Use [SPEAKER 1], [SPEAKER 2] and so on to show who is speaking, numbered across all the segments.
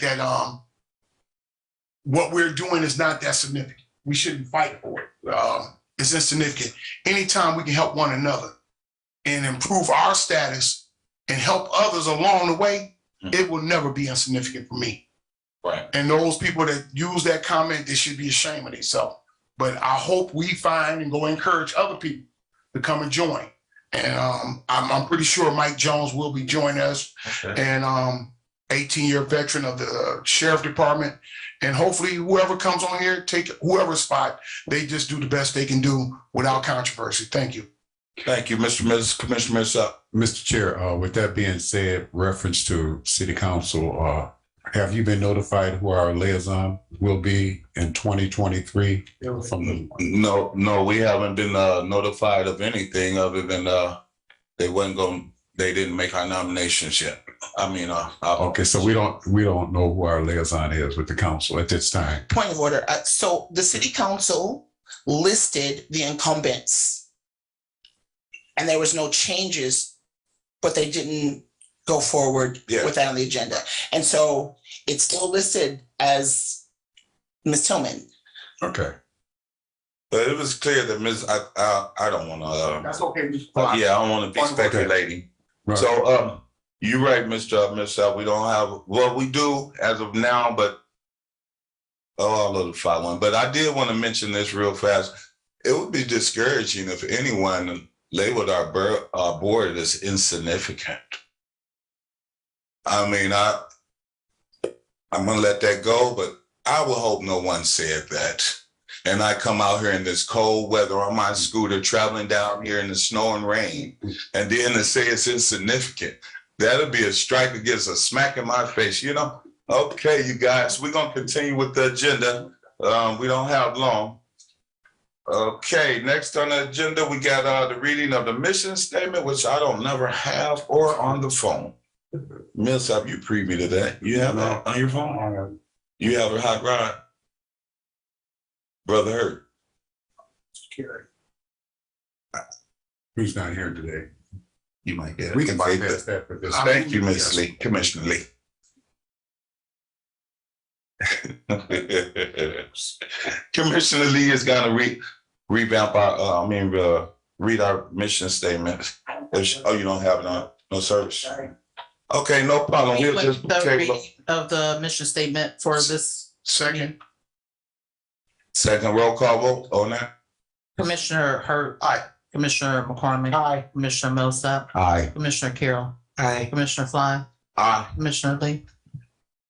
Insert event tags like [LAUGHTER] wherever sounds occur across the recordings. [SPEAKER 1] that um what we're doing is not that significant. We shouldn't fight for it. Um, it's insignificant. Anytime we can help one another and improve our status and help others along the way,
[SPEAKER 2] Mhm.
[SPEAKER 1] it will never be insignificant for me.
[SPEAKER 2] Right.
[SPEAKER 1] And those people that use that comment, they should be ashamed of themselves. But I hope we find and go encourage other people to come and join. And um, I'm, I'm pretty sure Mike Jones will be joining us
[SPEAKER 2] Okay.
[SPEAKER 1] and um, 18 year veteran of the uh, sheriff department. And hopefully whoever comes on here, take whoever's spot, they just do the best they can do without controversy. Thank you.
[SPEAKER 2] Thank you, Mr. Mrs. Commissioner Sutton.
[SPEAKER 3] Mr. Chair, uh, with that being said, reference to city council, uh, have you been notified who our liaison will be in twenty twenty-three? From the,
[SPEAKER 2] No, no, we haven't been uh, notified of anything other than uh, they wasn't going. They didn't make our nominations yet. I mean, uh, uh,
[SPEAKER 3] okay, so we don't, we don't know who our liaison is with the council at this time.
[SPEAKER 4] Point of order. Uh, So the city council listed the incumbents. And there was no changes, but they didn't go forward
[SPEAKER 2] Yeah.
[SPEAKER 4] with that on the agenda. And so it's still listed as Ms. Tillman.
[SPEAKER 3] Okay.
[SPEAKER 2] but it was clear that Ms. I I, I don't want to.
[SPEAKER 1] That's okay. Mr.
[SPEAKER 2] Uh,
[SPEAKER 1] Clark.
[SPEAKER 2] yeah, I don't want to be
[SPEAKER 1] Okay.
[SPEAKER 2] speculating.
[SPEAKER 3] Right.
[SPEAKER 2] So, um, you're right, Mr. Michelle, we don't have, well, we do as of now, but oh, I'll notify one, but I did want to mention this real fast. It would be discouraging if anyone labeled our bur- our board as insignificant. I mean, I, I'm gonna let that go, but I would hope no one said that. And I come out here in this cold weather on my scooter, traveling down here in the snow and rain and then to say it's insignificant. That'll be a strike against a smack in my face, you know? Okay, you guys, we're gonna continue with the agenda. Um, we don't have long. Okay, next on the agenda, we got uh the reading of the mission statement, which I don't never have or on the phone. Miss, have you previewed that? You have that on your phone? You have a hot rod? Brother Hurt,
[SPEAKER 3] Who's not here today?
[SPEAKER 2] you might get it.
[SPEAKER 3] We can bypass that for this.
[SPEAKER 2] Thank you, Ms. Lee, Commissioner Lee. [LAUGHS] Commissioner Lee is gonna re, revamp our, uh, I mean, uh, read our mission statement. If she- Oh, you don't have it on, no service? Okay, no problem. We'll just
[SPEAKER 5] The
[SPEAKER 2] table.
[SPEAKER 5] reading of the mission statement for this
[SPEAKER 1] Second,
[SPEAKER 2] Second roll call vote on that?
[SPEAKER 5] Commissioner Hurt.
[SPEAKER 1] Aye.
[SPEAKER 5] Commissioner McCormick.
[SPEAKER 4] Aye.
[SPEAKER 5] Commissioner Millsap.
[SPEAKER 2] Aye.
[SPEAKER 5] Commissioner Carroll.
[SPEAKER 4] Aye.
[SPEAKER 5] Commissioner Fly.
[SPEAKER 2] Aye.
[SPEAKER 5] Commissioner Lee.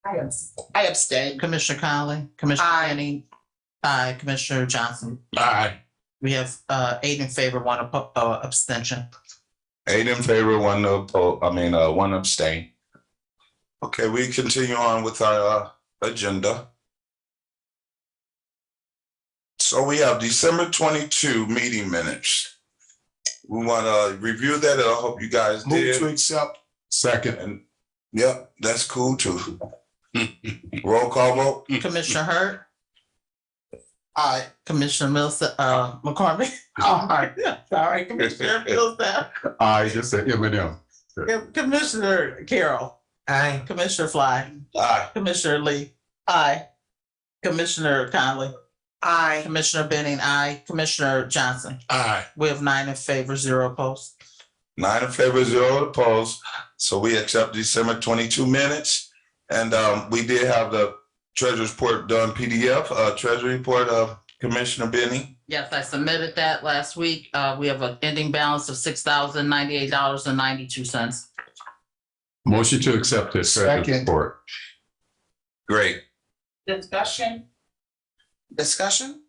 [SPEAKER 4] I abstain.
[SPEAKER 5] Commissioner Conley. Commissioner
[SPEAKER 4] Aye.
[SPEAKER 5] Manning. Aye. Commissioner Johnson.
[SPEAKER 1] aye.
[SPEAKER 5] We have uh, eight in favor, one oppo- uh, abstention.
[SPEAKER 2] Eight in favor, one oppo, I mean, uh, one abstain. Okay, we continue on with our, uh, agenda. So we have December twenty-two meeting minutes. We wanna review that, and I hope you guys
[SPEAKER 1] Move to
[SPEAKER 2] did,
[SPEAKER 1] accept.
[SPEAKER 3] Second,
[SPEAKER 2] and, yep, that's cool too. Roll call vote,
[SPEAKER 5] Commissioner Hurt.
[SPEAKER 1] Aye.
[SPEAKER 5] Commissioner Millsap, uh, McCormick.
[SPEAKER 1] Aye.
[SPEAKER 5] Sorry, Commissioner Millsap.
[SPEAKER 3] I just said M and M.
[SPEAKER 5] Commissioner Carroll. Aye. Commissioner Fly.
[SPEAKER 2] aye,
[SPEAKER 5] Commissioner Lee. Aye. Commissioner Conley.
[SPEAKER 4] Aye.
[SPEAKER 5] Commissioner Benning, aye. Commissioner Johnson.
[SPEAKER 1] Aye.
[SPEAKER 5] We have nine in favor, zero opposed.
[SPEAKER 2] nine in favor, zero opposed, so we accept December twenty-two minutes. And, um, we did have the treasurer's report done PDF, uh, treasury report of Commissioner Benny.
[SPEAKER 5] Yes, I submitted that last week. Uh, we have an ending balance of six thousand ninety-eight dollars and ninety-two cents.
[SPEAKER 3] Motion to accept this.
[SPEAKER 1] Second.
[SPEAKER 3] Report.
[SPEAKER 2] Great.
[SPEAKER 4] Discussion? Discussion?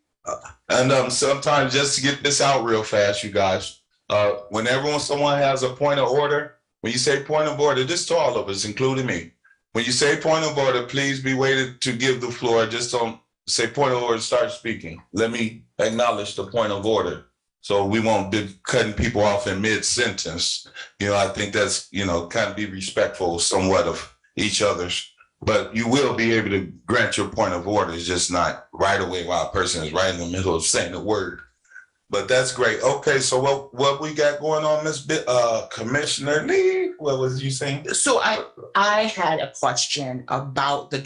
[SPEAKER 2] And um, sometimes just to get this out real fast, you guys, uh, whenever when someone has a point of order, when you say point of order, this to all of us, including me. When you say point of order, please be waited to give the floor. Just don't say point of order, start speaking. Let me acknowledge the point of order. So we won't be cutting people off in mid-sentence. You know, I think that's, you know, kind of be respectful somewhat of each other's. But you will be able to grant your point of order, it's just not right away while a person is right in the middle of saying the word. But that's great. Okay, so what, what we got going on, Miss Bi- uh, Commissioner Lee, what was you saying?
[SPEAKER 4] So I, I had a question about the